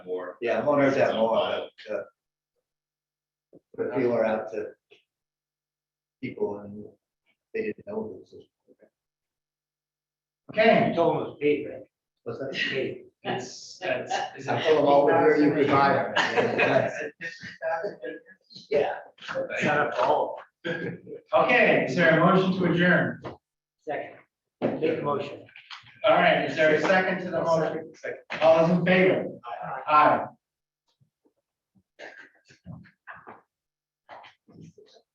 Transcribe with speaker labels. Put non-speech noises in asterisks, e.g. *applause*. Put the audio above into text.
Speaker 1: Yeah, I'm on Earth at more, but, uh. Put a feeler out to. People and they didn't know this.
Speaker 2: Ken you told him it was paid, right?
Speaker 1: Was that?
Speaker 2: Paid. It's, that's. it's
Speaker 1: I
Speaker 2: a-
Speaker 1: told them all the beer you could buy. them.
Speaker 2: *laughs*
Speaker 1: That's- Yeah.
Speaker 2: Shut up, all. Okay, is there a motion to adjourn? Second. Make a motion. All right, is there a second to the motion? All those in favor? Aye.